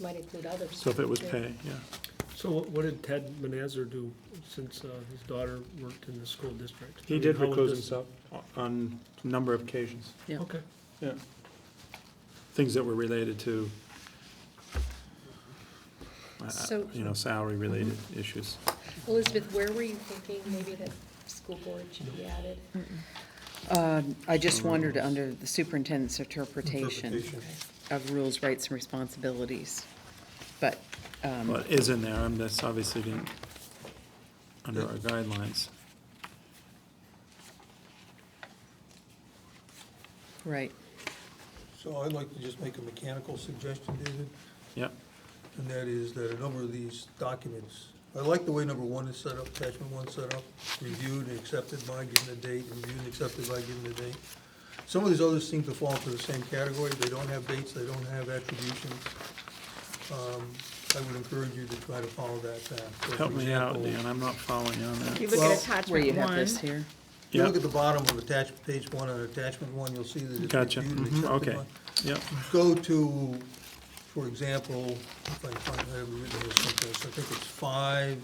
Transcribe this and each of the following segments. might include others. So if it was Yeah. pay, yeah. So what what did Ted Manazar do since uh, his daughter worked in the school district? I He mean, did how would recuse this- himself on a number of occasions, Yeah. Okay, yeah. Things that were related to, uh, So- you know, Mm-hmm. salary-related issues. Elizabeth, where were you thinking maybe that school board should be added? I just wondered, under the superintendent's interpretation of rules, rights, and responsibilities, but, um, Well, it is in there, and that's obviously didn't, under our guidelines. right, So I'd like to just make a mechanical suggestion, David, Yep, and that is that a number of these documents, I like the way number one is set up, attachment one's set up, reviewed and accepted by, given the date, reviewed and accepted by, given the date. Some of these others seem to fall into the same category, they don't have dates, they don't have attributions. Um, I would encourage you to try to follow that path. So, for help me out, example, Dan, I'm not following you on You that. look Well, at where you attachment have one, this here. If you look Yep, at the bottom of attachment, page one on attachment one, you'll see that it's gotcha, reviewed and mhm, accepted okay, by- yep, go to, for example, if I find, I have written this someplace, I think it's five,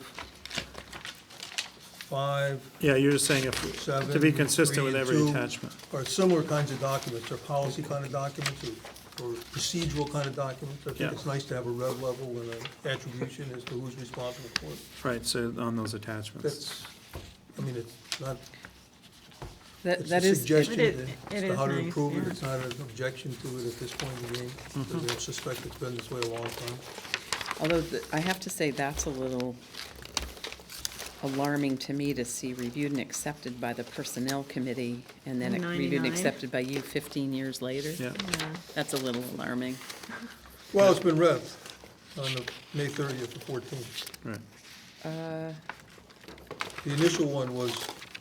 five, yeah, you're just saying if, to be Seven, consistent with three, and every two. attachment. or similar kinds of documents, or policy kind of documents, or- or procedural kind of documents. I Yeah. think it's nice to have a red level and an attribution as to who's responsible for it. Right, so on those attachments. That's, I mean, it's not, That, it's a that is, it- suggestion It is- to- it to is how to nice, improve it. yeah. It's not an objection to it at this point in the game, because I suspect it's been this way a long time. although th- I have to say, that's a little alarming to me to see reviewed and accepted by the personnel committee, and then it- reviewed and 99. accepted by you fifteen years later. Yeah, That's a little alarming. Well, it's been read on the May thirtieth to fourteenth. right, The initial one was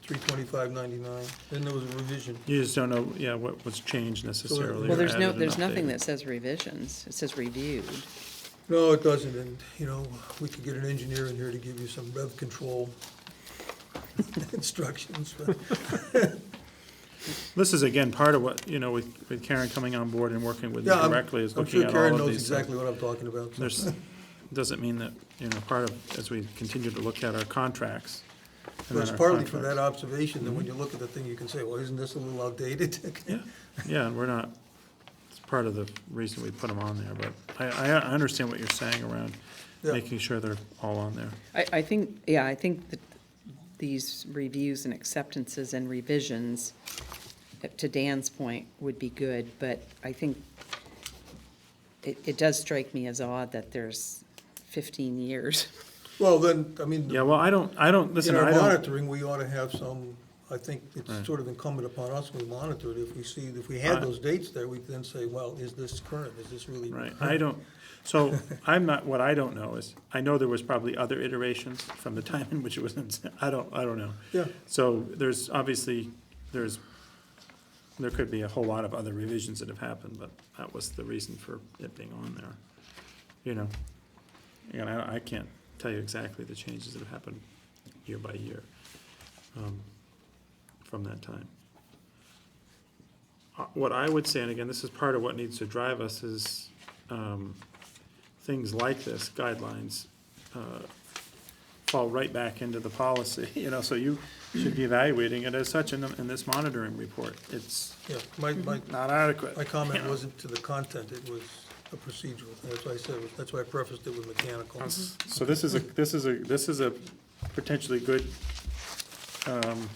three twenty-five ninety-nine, then there was a revision. you just don't know, yeah, what was changed necessarily. Well, or there's no, added and there's nothing updated. that says revisions, it says reviewed. No, it doesn't, and, you know, we could get an engineer in here to give you some rev control instructions, but This is again, part of what, you know, with, with Karen coming on board and working with me yeah, I'm, directly is I'm looking sure at all Karen of knows these. things. exactly what I'm talking about. so. There's, doesn't mean that, you know, part of, as we continue to look at our contracts. and But then It's our partly for contracts- that Mm-hmm. observation, that when you look at the thing, you can say, well, isn't this a little outdated? Yeah, yeah, and we're not, it's part of the reason we put them on there, but I, I, I understand what you're saying around Yeah. making sure they're all on there. I, I think, yeah, I think that these reviews and acceptances and revisions, uh, to Dan's point, would be good, but I think it, it does strike me as odd that there's fifteen years. Well, then, I mean, Yeah, well, I don't, I don't, In listen, our I don't, monitoring, we ought to have some, I think Right. it's sort of incumbent upon us when we monitor it, if we see, if we had Right. those dates there, we then say, well, is this current, is this really? right, I don't, so I'm not, what I don't know is, I know there was probably other iterations from the time in which it was, in- I don't, I don't know. Yeah, So there's obviously, there's, there could be a whole lot of other revisions that have happened, but that was the reason for it being on there, you know? And I, I can't tell you exactly the changes that have happened year by year, um, from that time. Uh, What I would say, and again, this is part of what needs to drive us, is, um, things like this, guidelines, uh, fall right back into the policy, you know, so you should be evaluating it as such in, the- in this monitoring report. It's yeah, my, my, not adequate. my comment Yeah. wasn't to the content, it was a procedural, thing. that's why I said, that's why I prefaced it with mechanical. So this is a, this is a, this is a potentially good, um,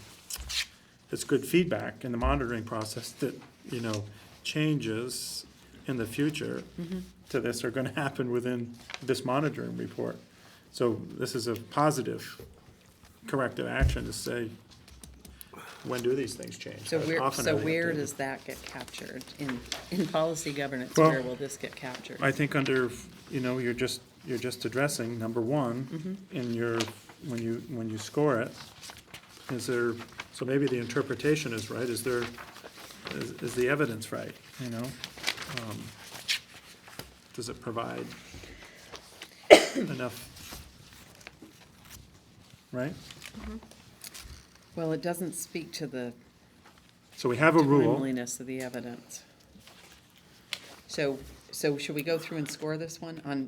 it's good feedback in the monitoring process that, you know, changes in the future to this are gonna happen within this monitoring report. So this is a positive corrective action to say, when do these things change? So How where, often so are they where updated? does that get captured? In, in policy governance, Well- where will this get captured? I think under, you know, you're just, you're just addressing number one in your, when you, when you score it. Is there, so maybe the interpretation is right, is there, is, is the evidence right, you know? Um, Does it provide enough? Right? Well, it doesn't speak to the So we have a rule, timeliness of the evidence. So, so should we go through and score this one on